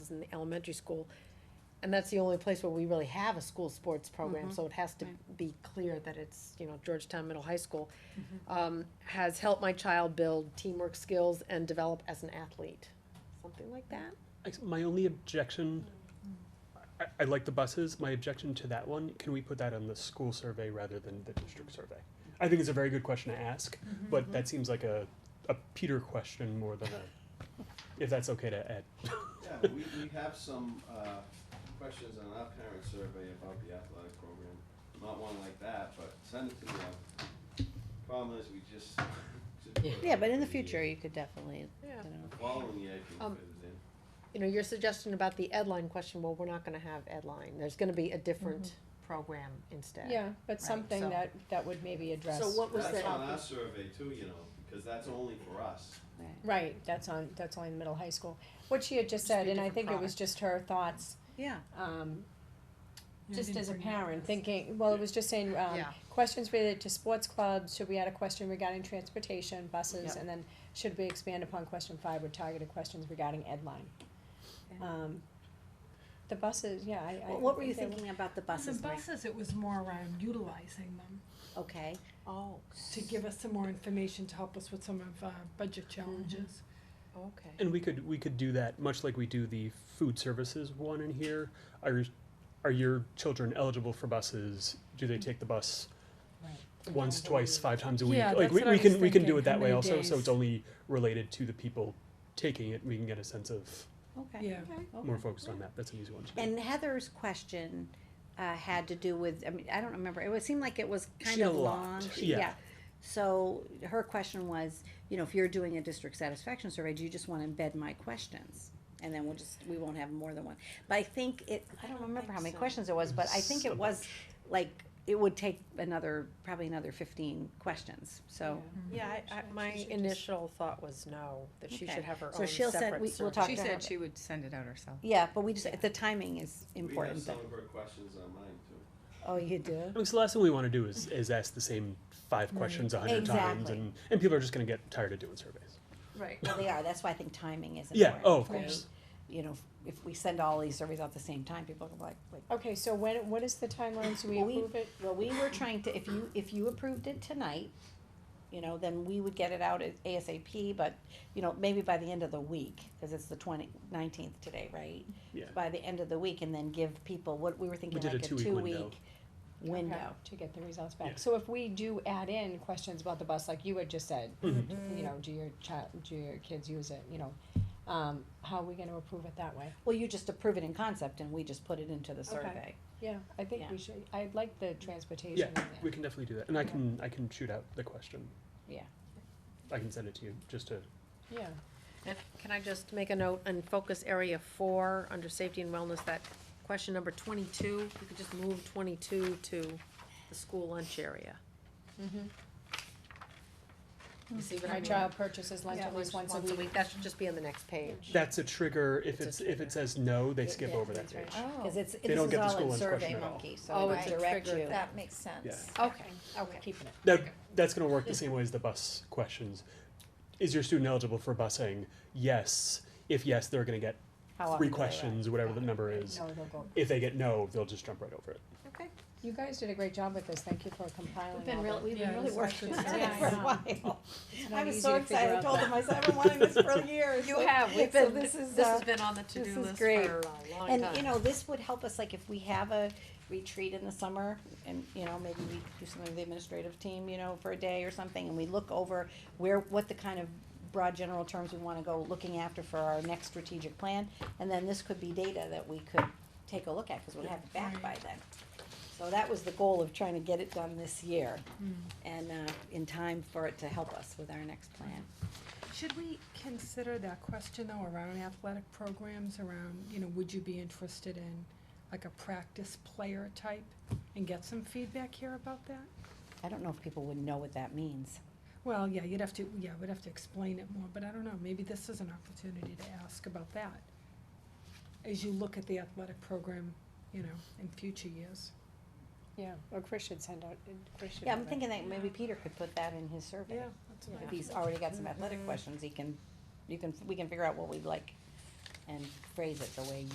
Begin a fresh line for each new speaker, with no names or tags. in the elementary school. And that's the only place where we really have a school sports program, so it has to be clear that it's, you know, Georgetown Middle High School. Um, has helped my child build teamwork skills and develop as an athlete, something like that.
Ex- My only objection, I, I like the buses, my objection to that one, can we put that on the school survey rather than the district survey? I think it's a very good question to ask, but that seems like a, a Peter question more than a, if that's okay to add.
Yeah, we, we have some, uh, questions on our parent survey about the athletic program. Not one like that, but send it to me. Problem is, we just.
Yeah, but in the future, you could definitely,
Yeah.
you know.
Following the I
Um,
can fit it in.
You know, your suggestion about the Edline question, well, we're not gonna have Edline, there's gonna be a different program instead.
Yeah, but
Right,
something
so-
that, that would maybe address.
So what was
That's
the,
on our survey too, you know, because that's only for us.
Right, that's on, that's only in middle high school. What she had just
Just be a
said, and I
different
think it was
product.
just her thoughts,
Yeah.
um,
Yeah, I
just
didn't
as a
bring that up.
parent, thinking, well, it was just saying, um,
Yeah.
questions related to sports clubs, should we add a question regarding transportation, buses,
Yeah.
and then should we expand upon question five with targeted questions regarding Edline?
Okay.
Um, the buses, yeah, I, I.
What, what were
think
you
they were-
thinking about the
On the
buses? Mike?
buses, it was more around utilizing them,
Okay. Oh.
to give us some more information to help us with some of our budget
Mm-hmm.
challenges.
okay,
And we could, we could do that, much like we do the food services one in here. Are, are your children eligible for buses? Do they take the bus once, twice, five times a week?
Yeah,
Like,
that's
we,
what I
we
was
can, we can
thinking,
do it
how
that way
many
also, so
days?
it's only related to the people taking it. We can get a sense of
Okay.
Yeah.
okay,
more
okay.
focused on that. That's an easy one to do.
And Heather's question uh, had to do with, I mean, I don't remember, it would seem like it was
She
kind
had
of
a lot,
long. She-
yeah.
So her question was, you know, if you're doing a district satisfaction survey, do you just wanna embed my questions? And then we'll just, we won't have more than one. But I think it, I don't remember how many questions it was, but I think
a
it was, like, it would take another, probably another fifteen questions, so.
Mm-hmm.
yeah, I, I, my initial thought was no, that she
Okay.
should have her
So
own
she'll
separate
send-
survey.
we- we'll talk
She
to her
said
about-
she would send it out herself.
Yeah, but we just, the timing is important.
We have some of her questions on mine too.
Oh, you do?
Because the last thing we want to do is, is ask the same five questions a hundred times,
Exactly.
and, and people are just going to get tired of doing surveys.
Right.
Well, they are, that's why I think timing is
Yeah.
important.
Oh, of
right?
course.
you know, if we send all these surveys out at the same time, people are like, like,
Okay, so when, what is the timeline, so we
Well, we-
approve it?
well, we were trying to, if you, if you approved it tonight, you know, then we would get it out at ASAP, but, you know, maybe by the end of the week, cause it's the twenty, nineteenth today, right?
Yeah.
By the end of the week and then give people, what, we were thinking
did
like
a
a
two-week window.
two-week window.
To get the results
Yeah.
back. So if we do add in questions about the bus, like you had just said,
Mm-hmm.
Mm-hmm.
you know, do your child, do your kids use it, you know? Um, how are we gonna approve it that way?
Well, you just approve it in concept and we just put it into the survey.
Yeah, I think
Yeah.
we should, I like the transportation.
Yeah,
in there.
we can definitely do that, and I can I can shoot out the question.
Yeah.
I can send it to you just to.
Yeah,
And can I just make a note and focus area four, under safety and wellness, that question number twenty-two, you could just move twenty-two to the school lunch area.
Mm-hmm.
Mm-hmm.
You see what I
my
mean?
child purchases lunch
Yeah,
at least once a week.
That should just be on the next page.
That's a trigger. If
It's
it's,
a
if it says no, they
Yeah,
skip
yeah,
over that
that's right.
page.
Oh.
Cause it's,
They
this
don't
is
get the
all
school
in
lunch
Survey
question at all.
Monkey,
Oh,
so
it's
it
a
direct
trigger.
you.
That makes sense.
Yeah.
Okay,
We're
okay.
Keeping it.
That that's going to work the same way as the bus questions. Is your student eligible for busing? Yes. If yes, they're going to get
How often
three
do they
questions, whatever the number is.
No, they'll go.
If they get no, they'll just jump right over it.
Okay.
You guys did a great job with this. Thank you for compiling all
We've been
the-
really, we've been
Yeah,
really
it's
working on
actually-
it
Yeah,
for a
I
while.
It's
I
not
was
easy
so
to figure
excited, I
out
told
the-
them, I said, I've been wanting this for years.
You have, we've
So
been,
this
this
is,
has
uh,
been on the
this
to-do
is
list for
great.
a long time.
And, you know, this would help us, like, if we have a retreat in the summer, and, you know, maybe we do something with the administrative team, you know, for a day or something, and we look over where, what the kind of broad general terms we wanna go looking after for our next strategic plan, and then this could be data that we could take a look at, cause we'll have it back by then. So that was the goal of trying to get it done this year, and, uh, in time for it to help us with our next plan.
Should we consider that question though around athletic programs, around, you know, would you be interested in like a practice player type? And get some feedback here about that?
I don't know if people would know what that means.
Well, yeah, you'd have to, yeah, we'd have to explain it more, but I don't know, maybe this is an opportunity to ask about that. As you look at the athletic program, you know, in future years.
Yeah, or Chris should send out, Chris should.
Yeah, I'm
have it.
thinking that maybe Peter could put that in his survey.
that's
If he's already got some athletic questions, he can, you can, we can figure out what we'd like and phrase it the way